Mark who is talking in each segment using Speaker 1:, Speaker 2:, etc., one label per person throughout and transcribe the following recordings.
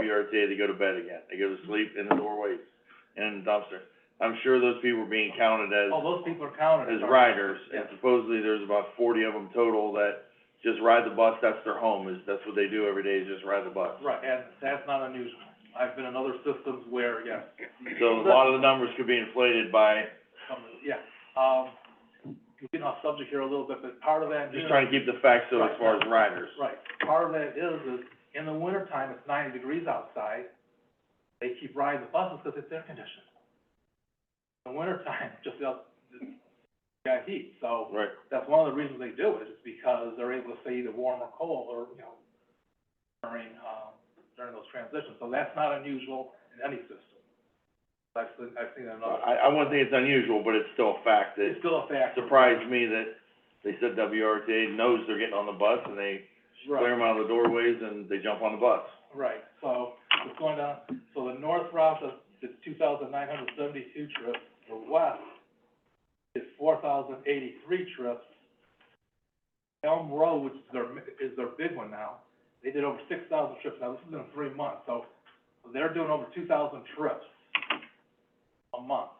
Speaker 1: WRTA, they go to bed again, they go to sleep in the doorways, in the dumpster. I'm sure those people are being counted as,
Speaker 2: Oh, those people are counted.
Speaker 1: as riders, and
Speaker 2: Yeah.
Speaker 1: supposedly there's about forty of them total that just ride the bus, that's their home, is, that's what they do every day, is just ride the bus.
Speaker 2: Right, and that's not unusual. I've been in other systems where, yes,
Speaker 1: So a lot of the numbers could be inflated by,
Speaker 2: some, yeah, um, we're getting off subject here a little bit, but part of that
Speaker 1: I'm
Speaker 2: is.
Speaker 1: just trying to keep the facts so as far as riders.
Speaker 2: Right, part of that is, is in the wintertime, it's ninety degrees outside, they keep riding the buses because it's air conditioned. In the wintertime, just out, it's got heat, so
Speaker 1: Right.
Speaker 2: that's one of the reasons they do it, is because they're able to stay either warm or cold, or, you know, during, um, during those transitions, so that's not unusual in any system. I've seen, I've seen it in other,
Speaker 1: I, I wouldn't think it's unusual, but it's still a fact that
Speaker 2: it's still a factor.
Speaker 1: surprised me that they said WRTA knows they're getting on the bus and they
Speaker 2: Right.
Speaker 1: clear them out of the doorways and they jump on the bus.
Speaker 2: Right, so it's going down, so the north route is, is two thousand nine hundred seventy-two trips, the west is four thousand eighty-three trips. Elm Road, which is their, mi- is their big one now, they did over six thousand trips, now this is in three months, so they're doing over two thousand trips a month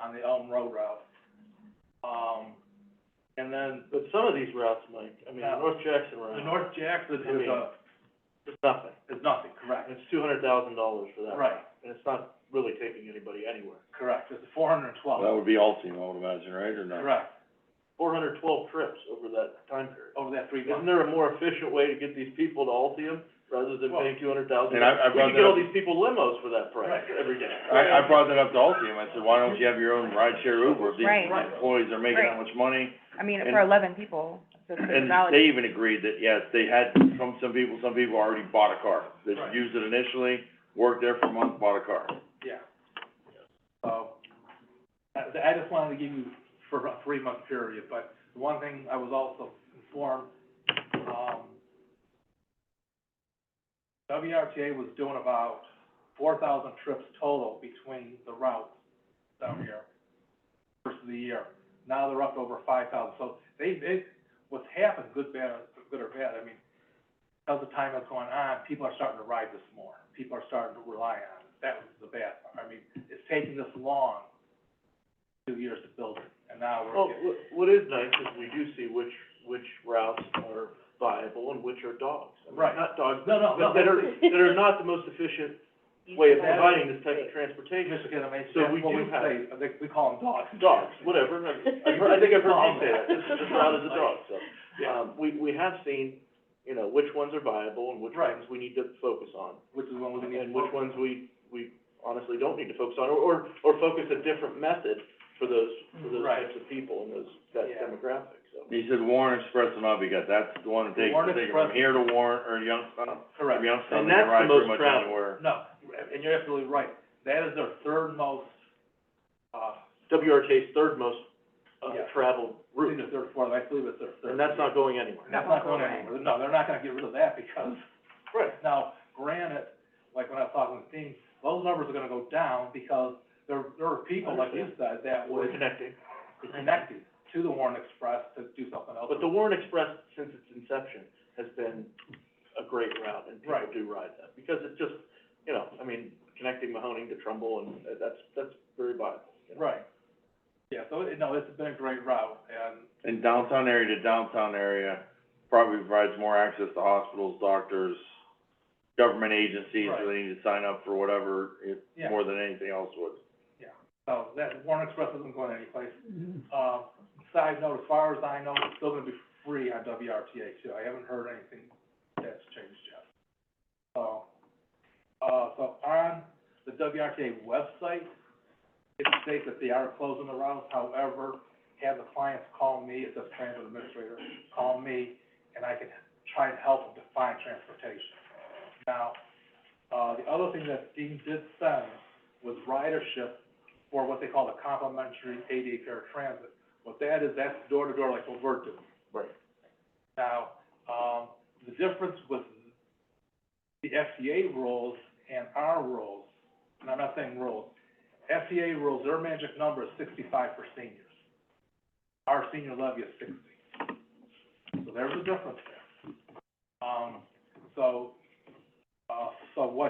Speaker 2: on the Elm Road route. Um, and then
Speaker 3: But some of these routes, Mike, I mean, the
Speaker 2: Yeah.
Speaker 3: North Jackson
Speaker 2: the
Speaker 3: route,
Speaker 2: North Jackson
Speaker 3: I
Speaker 2: is
Speaker 3: mean-
Speaker 2: a,
Speaker 3: it's nothing,
Speaker 2: is nothing, correct?
Speaker 3: and it's two hundred thousand dollars for that.
Speaker 2: Right,
Speaker 3: And it's not really taking anybody anywhere.
Speaker 2: correct, it's four hundred and twelve.
Speaker 1: That would be Altium, I would imagine, right, or no?
Speaker 2: Correct,
Speaker 3: Four hundred twelve trips over that time period.
Speaker 2: over that three
Speaker 3: Isn't
Speaker 2: months.
Speaker 3: there a more efficient way to get these people to Altium rather than
Speaker 2: Well-
Speaker 3: paying two hundred thousand?
Speaker 1: And I- I brought
Speaker 3: We could get
Speaker 1: that
Speaker 3: all
Speaker 1: up-
Speaker 3: these people limos for that price
Speaker 2: Right.
Speaker 3: every day.
Speaker 1: I, I brought that up to Altium, I said, why don't you have your own rideshare Uber, if
Speaker 2: Right.
Speaker 1: these employees are making that much money?
Speaker 4: I mean,
Speaker 1: And-
Speaker 4: for eleven people, it's a
Speaker 1: And
Speaker 4: valid.
Speaker 1: they even agreed that, yes, they had, some, some people, some people already bought a car, they
Speaker 2: Right.
Speaker 1: used it initially, worked there for a month, bought a car.
Speaker 2: Yeah. So, I, I just wanted to give you for a three-month period, but the one thing I was also informed, um, WRTA was doing about four thousand trips total between the routes down here, first of the year. Now they're up over five thousand, so they, they, what's happened, good, bad, good or bad, I mean, as the time has gone on, people are starting to ride this more. People are starting to rely on it. That was the bad part. I mean, it's taking this long, two years to build it, and now
Speaker 3: Well,
Speaker 2: we're getting.
Speaker 3: wh- what is nice is we do see which, which routes are viable and which are dogs. I mean,
Speaker 2: Right.
Speaker 3: Not dogs,
Speaker 2: No, no,
Speaker 3: but
Speaker 2: no,
Speaker 3: that are,
Speaker 2: that's-
Speaker 3: that are not the most efficient way of
Speaker 2: That-
Speaker 3: providing this type of transportation.
Speaker 2: Michigan, I mean,
Speaker 3: So
Speaker 2: that's
Speaker 3: we
Speaker 2: what we
Speaker 3: do have-
Speaker 2: say, they, we call them dogs.
Speaker 3: dogs, whatever, I, I've heard- I think I've heard you say that, this is just out as a dog, so.
Speaker 2: Yeah.
Speaker 3: Um, we, we have seen, you know, which ones are viable and which
Speaker 2: Right.
Speaker 3: ones we need to focus on.
Speaker 2: Which is one we need to.
Speaker 3: And which ones we, we honestly don't need to focus on, or, or, or focus a different method for those, for those
Speaker 2: Right.
Speaker 3: types of people and those, that
Speaker 2: Yeah.
Speaker 3: demographic, so.
Speaker 1: He said Warren Express and Abigat, that's the one that
Speaker 2: The
Speaker 1: takes,
Speaker 2: Warren
Speaker 1: take it from
Speaker 2: Express-
Speaker 1: here to Warren, or Youngstown,
Speaker 2: Correct.
Speaker 1: from Youngstown,
Speaker 3: And
Speaker 1: they can
Speaker 3: that's the
Speaker 1: ride pretty
Speaker 3: most
Speaker 1: much
Speaker 3: traveled.
Speaker 1: anywhere.
Speaker 2: No, and you're absolutely right. That is their third most, uh,
Speaker 3: WRTA's third most, uh,
Speaker 2: Yeah.
Speaker 3: traveled
Speaker 2: I think
Speaker 3: route,
Speaker 2: their third, fourth, I believe it's their third.
Speaker 3: and that's not going anywhere.
Speaker 2: That's not going anywhere. No, they're not gonna get rid of that because
Speaker 3: Right.
Speaker 2: Now, granted, like when I was talking with Dean, those numbers are gonna go down because there, there are people, like you said, that
Speaker 3: We're
Speaker 2: would
Speaker 3: connecting.
Speaker 2: be connected to the Warren Express to do something else.
Speaker 3: But the Warren Express, since its inception, has been a great route, and people
Speaker 2: Right.
Speaker 3: do ride that, because it's just, you know, I mean, connecting Mahoning to Trumbull, and that- that's, that's very viable. you know.
Speaker 2: Right. Yeah, so, it- no, it's been a great route and,
Speaker 1: And downtown area to downtown area probably provides more access to hospitals, doctors, government agencies, where they need to sign up for whatever, if,
Speaker 2: Yeah.
Speaker 1: more than anything else would.
Speaker 2: so that Warren Express isn't going anyplace. Um, side note, as far as I know, it's still gonna be free on WRTA too. I haven't heard anything that's changed yet. So, uh, so on the WRTA website, it states that they are closing the routes, however, have the clients call me, it says transit administrator, call me, and I can try and help them to find transportation. Now, uh, the other thing that Dean did send was ridership for what they call the complimentary ADA paratransit. What that is, that's door to door like what we're doing.
Speaker 3: Right.
Speaker 2: Now, um, the difference with the FCA rules and our rules, and I'm not saying rules, FCA rules, their magic number is sixty-five for seniors. Our senior levy is sixty. So there's a difference there. Um, so, uh, so what